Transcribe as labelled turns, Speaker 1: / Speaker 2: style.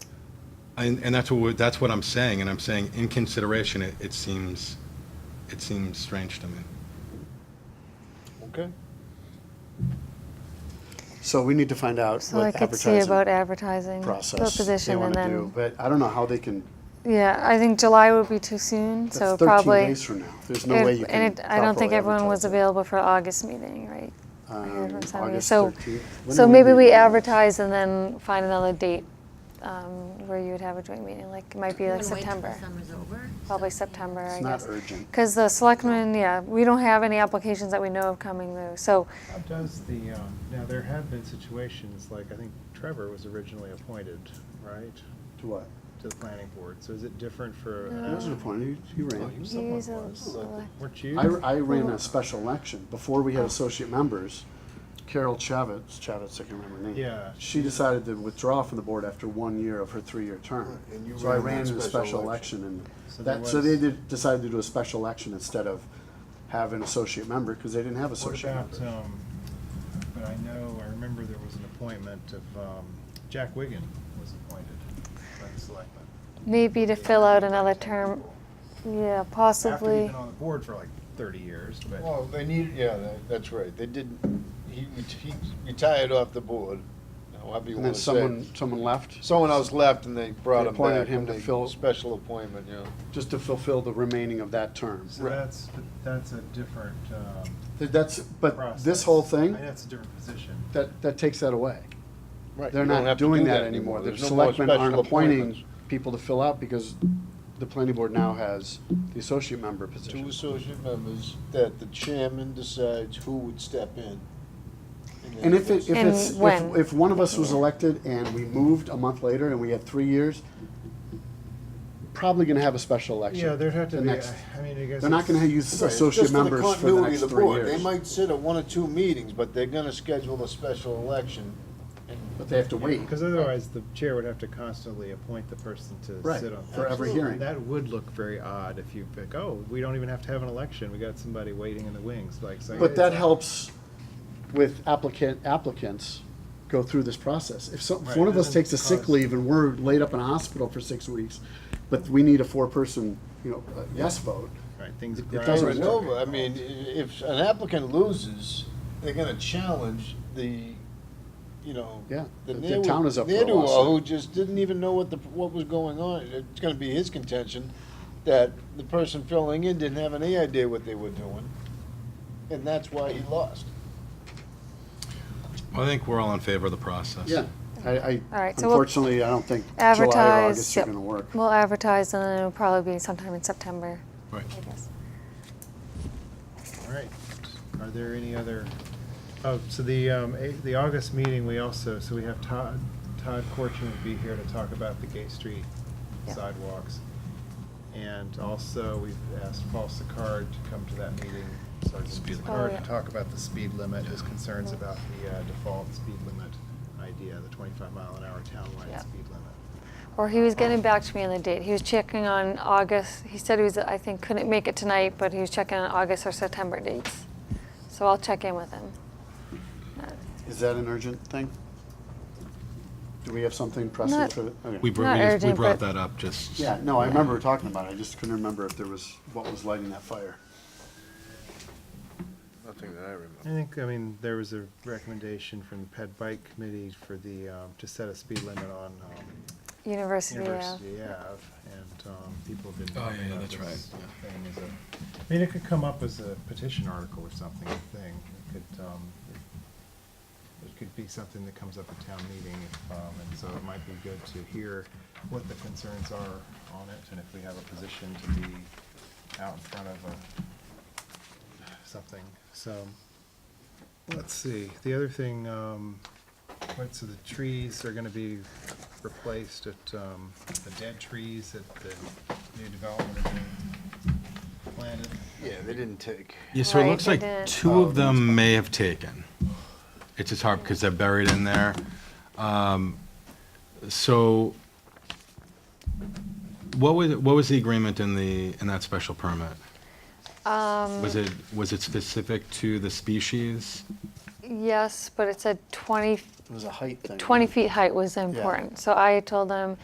Speaker 1: And, and that's what, we're- that's what I'm saying, and I'm saying in consideration, it, it seems, it seems strange to me.
Speaker 2: Okay.
Speaker 3: So we need to find out
Speaker 4: So I
Speaker 3: what
Speaker 4: could see about
Speaker 3: advertising
Speaker 4: advertising the
Speaker 3: process they
Speaker 4: position and
Speaker 3: want to do,
Speaker 4: then,
Speaker 3: but I don't know how they can,
Speaker 4: yeah, I think July would be too soon, so
Speaker 3: that's 13
Speaker 4: probably.
Speaker 3: days from now. There's no
Speaker 4: it-
Speaker 3: way you can
Speaker 4: And it- I don't think
Speaker 3: properly
Speaker 4: everyone was
Speaker 3: advertise
Speaker 4: available for August meeting, right?
Speaker 3: it.
Speaker 4: I heard
Speaker 3: Um,
Speaker 4: from somebody.
Speaker 3: August
Speaker 4: So-
Speaker 3: 13th. When
Speaker 4: So
Speaker 3: do
Speaker 4: maybe we
Speaker 3: meet?
Speaker 4: advertise and then find another date um, where you would have a joint meeting, like, it might be like
Speaker 5: Wanna wait till
Speaker 4: September,
Speaker 5: Summer's over.
Speaker 4: probably
Speaker 5: So-
Speaker 4: September, I
Speaker 3: It's not
Speaker 4: guess.
Speaker 3: urgent.
Speaker 4: Because the selectmen, yeah, we don't have any applications that we know of coming through, so,
Speaker 2: How does the, um, now, there have been situations, like, I think Trevor was originally appointed, right,
Speaker 3: To what?
Speaker 2: to the planning board, so is it different for? uh, an
Speaker 3: That was an
Speaker 2: app-
Speaker 3: appointment. You
Speaker 2: Oh,
Speaker 3: ran.
Speaker 2: you- someone
Speaker 4: He's a
Speaker 2: was, but
Speaker 4: select-
Speaker 2: Weren't you?
Speaker 3: I, I ran a special election before we had associate members. Carol Chavez, Chavez, I can't remember her name.
Speaker 2: Yeah.
Speaker 3: She decided to withdraw from the board after one year of her three-year term.
Speaker 6: Right, and you
Speaker 3: So I
Speaker 6: ran
Speaker 3: ran
Speaker 6: that
Speaker 3: in a
Speaker 6: special
Speaker 3: special
Speaker 6: election.
Speaker 3: election and
Speaker 2: So there
Speaker 3: that, so they
Speaker 2: was-
Speaker 3: did, decided to do a special election instead of have an associate member because they didn't have
Speaker 2: What
Speaker 3: associate
Speaker 2: about,
Speaker 3: members.
Speaker 2: um, but I know, I remember there was an appointment of, um, Jack Wigan was appointed by the selectmen.
Speaker 4: maybe to fill out another term, yeah,
Speaker 2: After he'd
Speaker 4: possibly.
Speaker 2: been on the board for like thirty years, but.
Speaker 6: Well, they need, yeah, that- that's right. They didn't, he, ret- he retired off the board, however you
Speaker 3: And
Speaker 6: wanna
Speaker 3: then
Speaker 6: say.
Speaker 3: someone,
Speaker 6: it.
Speaker 3: someone left
Speaker 6: Someone else left and they
Speaker 3: They
Speaker 6: brought him back.
Speaker 3: appointed him
Speaker 6: and
Speaker 3: to
Speaker 6: they-
Speaker 3: fill-
Speaker 6: Special appointment, yeah.
Speaker 3: just to fulfill the remaining of that term.
Speaker 2: So that's, but that's a different, um,
Speaker 3: That- That's, but
Speaker 2: process.
Speaker 3: this whole
Speaker 2: I
Speaker 3: thing,
Speaker 2: mean, that's a different position.
Speaker 3: that, that takes that away.
Speaker 6: Right.
Speaker 3: They're
Speaker 6: you don't
Speaker 3: not
Speaker 6: have to
Speaker 3: doing
Speaker 6: do
Speaker 3: that anymore. The
Speaker 6: There's no more
Speaker 3: selectmen
Speaker 6: special
Speaker 3: aren't
Speaker 6: appointments.
Speaker 3: appointing people to fill out because the planning board now has the associate member
Speaker 6: Two
Speaker 3: position.
Speaker 6: associate members that the chairman decides who would step in. then
Speaker 3: And if it, if
Speaker 4: And
Speaker 3: it's, if,
Speaker 4: when?
Speaker 3: if one of us was elected and we moved a month later and we had three years, probably gonna have a special election.
Speaker 2: Yeah, there'd have to
Speaker 3: the
Speaker 2: be, I
Speaker 3: next-
Speaker 2: I mean, I guess.
Speaker 3: They're not gonna
Speaker 2: it's-
Speaker 3: use
Speaker 6: Right, it's just
Speaker 3: associate
Speaker 6: for the
Speaker 3: members for the
Speaker 6: continuity
Speaker 3: next
Speaker 6: of the
Speaker 3: three
Speaker 6: board. They
Speaker 3: years.
Speaker 6: might sit at one or two meetings, but they're gonna schedule a special election and
Speaker 3: But they have to wait.
Speaker 2: Because otherwise, the chair would have to constantly appoint the person to
Speaker 3: Right,
Speaker 2: sit on. that.
Speaker 3: for every
Speaker 2: Absolutely.
Speaker 3: hearing.
Speaker 2: That would look very odd if you pick, oh, we don't even have to have an election, we got somebody waiting in the wings, like, so.
Speaker 3: But that helps with applicant, applicants go through this process. If some, if
Speaker 2: Right,
Speaker 3: one of
Speaker 2: it
Speaker 3: us takes a
Speaker 2: doesn't
Speaker 3: sick
Speaker 2: cause-
Speaker 3: leave and we're laid up in a hospital for six weeks, but we need a four-person, you know, uh, yes vote,
Speaker 2: Right, things.
Speaker 3: It
Speaker 2: grind
Speaker 3: doesn't
Speaker 2: to a
Speaker 6: Over and
Speaker 3: work.
Speaker 2: halt.
Speaker 6: over, I mean, i- if an applicant loses, they're gonna challenge the, you know.
Speaker 3: Yeah,
Speaker 6: the
Speaker 3: the- the
Speaker 6: ne'er-
Speaker 3: town is up for a
Speaker 6: ne'er-do-well
Speaker 3: lawsuit.
Speaker 6: Who just didn't even know what the, what was going on. It's gonna be his contention that the person filling in didn't have any idea what they were doing. And that's why he lost.
Speaker 1: I think we're all in favor of the process.
Speaker 3: yeah. I,
Speaker 4: All
Speaker 3: I,
Speaker 4: right, so we'll
Speaker 3: unfortunately, I don't think July or
Speaker 4: Advertise,
Speaker 3: August are
Speaker 4: yep.
Speaker 3: gonna work.
Speaker 4: We'll advertise and then it'll probably be sometime in September,
Speaker 1: Right.
Speaker 4: I guess.
Speaker 2: All right, are there any other, oh, so the, um, a- the August meeting, we also, so we have Todd, Todd Corchin would be here to talk about the Gay Street
Speaker 4: Yeah.
Speaker 2: sidewalks. And also, we've asked Paul Sicard to come to that meeting, Sergeant
Speaker 1: Speed limit.
Speaker 2: Sicard,
Speaker 4: Oh,
Speaker 2: to
Speaker 4: yeah.
Speaker 2: talk about the speed limit, his concerns about the uh, default speed limit idea, the twenty-five mile an hour townwide
Speaker 4: Yeah.
Speaker 2: speed limit.
Speaker 4: Or he was getting back to me on the date. He was checking on August. He said he was, I think, couldn't make it tonight, but he was checking on August or September dates. So I'll check in with him.
Speaker 3: Is that an urgent thing? Do we have something pressing
Speaker 4: Not-
Speaker 3: for, the- okay.
Speaker 1: We, br-
Speaker 4: Not
Speaker 1: we, just- we
Speaker 4: urgent,
Speaker 1: brought
Speaker 4: but-
Speaker 1: that up just.
Speaker 3: Yeah, no, I remember talking about it, I just couldn't remember if there was, what was lighting that fire.
Speaker 6: Nothing that I remember.
Speaker 2: I think, I mean, there was a recommendation from the Ped Bike Committee for the, um, to set a speed limit on, um,
Speaker 4: University,
Speaker 2: University Ave, and um, people have been
Speaker 1: Oh,
Speaker 2: talking
Speaker 1: yeah,
Speaker 2: about
Speaker 1: that's
Speaker 2: this
Speaker 1: right,
Speaker 2: thing as a, I mean, it could come up as a petition article or something, a thing, it could, um, it- it could be something that comes up at town meeting, if, um, and so it might be good to hear what the concerns are on it, and if we have a position to be out in front of a, something, so. Let's see, the other thing, um, what, so the trees are gonna be replaced at, um, the dead trees at the new development are being planted.
Speaker 6: Yeah, they didn't take.
Speaker 1: Yeah, so it
Speaker 4: Right,
Speaker 1: looks
Speaker 4: they
Speaker 1: like
Speaker 4: didn't.
Speaker 1: two of them may have taken. It's just hard because they're buried in there. Um, So what was, what was the agreement in the, in that special permit?
Speaker 4: Um,
Speaker 1: Was it, was it specific to the species?
Speaker 4: yeah. Yes, but it said 20,
Speaker 3: It was a height thing.
Speaker 4: 20 feet height was important. So I told him